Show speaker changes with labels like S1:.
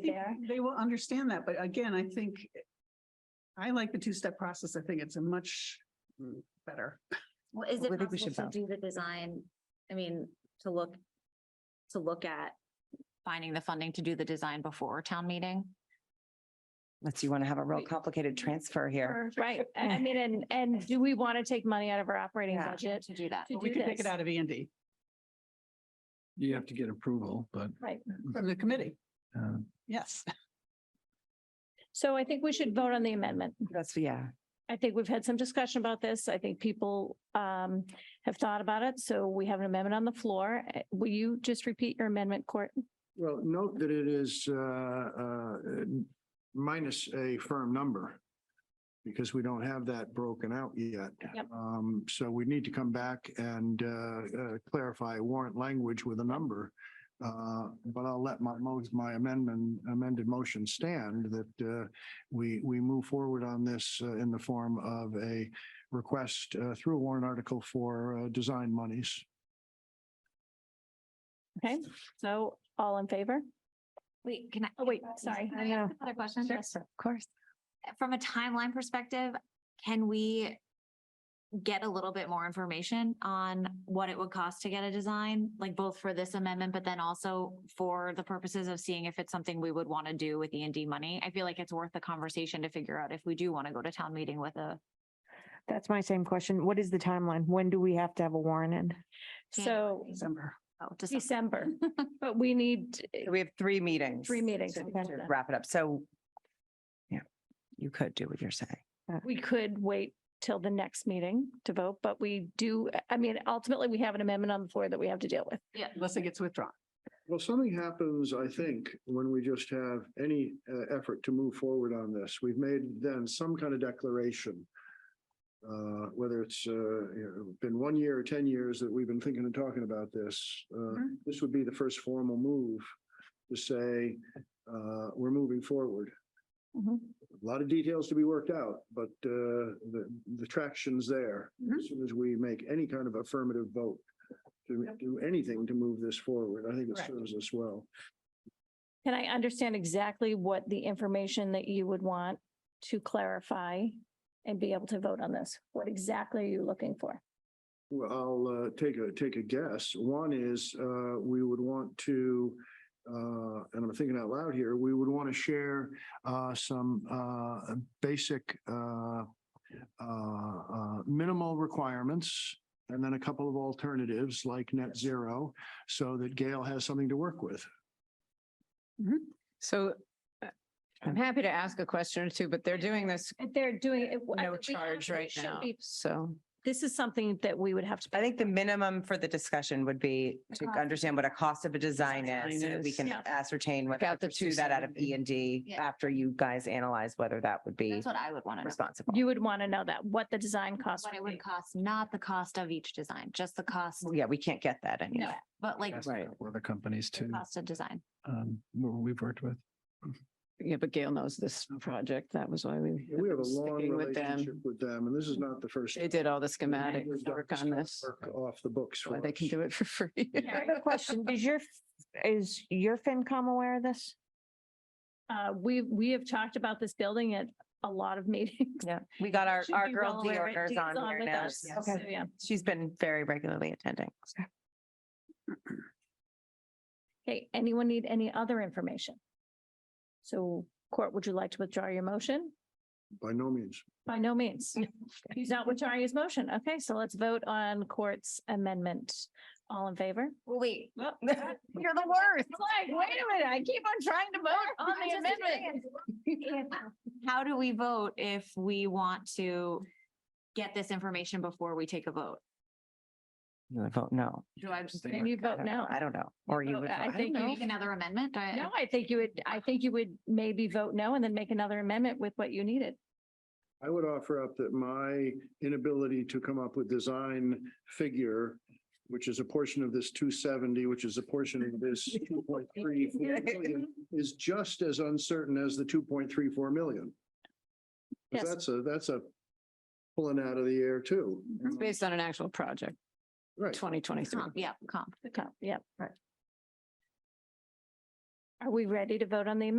S1: think
S2: there.
S1: They will understand that, but again, I think I like the two-step process. I think it's a much mm, better.
S2: Well, is
S3: Well,
S2: it
S3: I think we
S2: possible to
S3: should
S2: do the design, I mean, to look, to look at finding the funding to do the design before town meeting?
S3: Unless you want to have a real complicated transfer here.
S4: Right. I I mean, and, and do we want to take money out of our operating
S3: Yeah.
S4: budget
S2: To do that.
S4: to
S1: But We
S4: do
S1: could take
S4: this?
S1: it out of E and D
S5: You have to get approval, but
S4: Right.
S1: from the committee.
S5: uh,
S1: Yes.
S4: So I think we should vote on the amendment.
S3: That's, yeah.
S4: I think we've had some discussion about this. I think people um, have thought about it. So we have an amendment on the floor. Uh, Will you just repeat your amendment, Court?
S6: Well, note that it is uh, uh, minus a firm number because we don't have that broken out yet.
S4: Yep.
S6: Um, So we need to come back and uh, uh, clarify warrant language with a number. Uh, But I'll let my, mo- my amendment, amended motion stand that uh, we, we move forward on this uh, in the form of a request uh, through a warrant article for uh, design monies.
S4: Okay, so all in favor?
S2: Wait, can I?
S4: Oh, wait, sorry.
S2: Can I ask Another question?
S4: Yes, of course.
S2: From a timeline perspective, can we get a little bit more information on what it would cost to get a design? Like both for this amendment, but then also for the purposes of seeing if it's something we would want to do with E and D money? I feel like it's worth the conversation to figure out if we do want to go to town meeting with a
S7: That's my same question. What is the timeline? When do we have to have a warrant in?
S4: So
S1: December.
S2: Oh, to some-
S4: December, but we need
S3: We have three meetings.
S4: three meetings.
S3: to- To wrap it up. So, yeah, you could do what you're saying.
S4: We could wait till the next meeting to vote, but we do, I mean, ultimately, we have an amendment on the floor that we have to deal with.
S1: Unless it gets withdrawn.
S6: Well, something happens, I think, when we just have any uh, effort to move forward on this. We've made then some kind of declaration. Uh, whether it's, uh, you know, been one year or ten years that we've been thinking and talking about this, uh,
S1: Mhm.
S6: this would be the first formal move to say, uh, we're moving forward. A lot of details to be worked out, but, uh, the, the traction's there.
S1: Mhm.
S6: As soon as we make any kind of affirmative vote to do anything to move this forward, I think it
S1: Correct.
S6: serves us well.
S4: Can I understand exactly what the information that you would want to clarify and be able to vote on this? What exactly are you looking for?
S6: Well, I'll uh, take a, take a guess. One is uh, we would want to, uh, and I'm thinking out loud here, we would want to share uh, some uh, basic uh, uh, uh, minimal requirements and then a couple of alternatives like net zero so that Gail has something to work with.
S8: So uh,
S3: Um,
S8: I'm happy to ask a question or two, but they're doing this
S4: They're doing it.
S8: no charge right now. So
S4: This is something that we would have to.
S3: I think the minimum for the discussion would be to
S2: cost.
S3: understand what a cost of a design
S8: Design
S3: is. so that We
S8: is.
S3: can
S4: Yeah.
S3: ascertain whether
S8: About the
S3: to pursue that out of E
S8: 270.
S3: and D
S2: Yeah.
S3: after you guys analyze whether that would be
S2: that's what I would want to know.
S3: responsible.
S4: You would want to know that, what the design cost
S2: What it
S4: would be.
S2: would cost, not the cost of each design, just the cost,
S3: Well, Yeah, we can't get that anyway.
S2: but like
S5: that's
S3: Right.
S5: with other companies
S2: the
S5: too,
S2: cost of design.
S5: um, where we've worked with.
S8: yeah, but Gail knows this project. That was why we.
S6: We have a long
S8: sticking with them.
S6: relationship with them and this is not the first.
S8: They did all the
S6: time
S8: schematic
S6: we've done
S8: work on this.
S6: work Off the books.
S8: so
S6: for
S8: They can
S6: us.
S8: do it for free.
S4: Yeah.
S7: I have a question. Is your, is your FinCom aware of this?
S4: Uh, we, we have talked about this building at a lot of meetings.
S3: Yeah, we got our,
S4: Should
S3: our
S4: be
S3: girl
S4: well aware of it.
S3: Deorder's
S4: Dee's
S3: on here
S4: with
S3: now.
S4: us.
S3: Yes.
S4: So, Yeah.
S3: She's been very regularly attending.
S4: Okay, anyone need any other information? So Court, would you like to withdraw your motion?
S6: By no means.
S4: By no means. He's not withdrawing his motion. Okay, so let's vote on Court's amendment. All in favor?
S2: Well, wait.
S4: Well,
S3: You're the worst.
S4: like, wait a minute, I keep on trying to vote on the amendment.
S2: How do we vote if we want to get this information before we take a vote?
S3: You would vote no.
S2: Do I
S5: Just
S2: just
S5: think-
S4: And you
S3: I
S4: vote
S3: don't know.
S4: no.
S3: I don't know. Or you
S4: vote-
S3: would.
S4: I
S3: vote-
S4: think you-
S2: make another amendment? Do I-
S4: No, I think you would, I think you would maybe vote no and then make another amendment with what you needed.
S6: I would offer up that my inability to come up with design figure, which is a portion of this two seventy, which is a portion of this two point three million, is just as uncertain as the two point three four million. 'Cause
S4: Yes.
S6: That's a, that's a pulling out of the air too.
S8: It's based on an actual project,
S6: Right.
S8: twenty twenty-three.
S2: Comp, Yeah, comp.
S4: Okay, Yep. Right. Are we ready to vote on the amendment?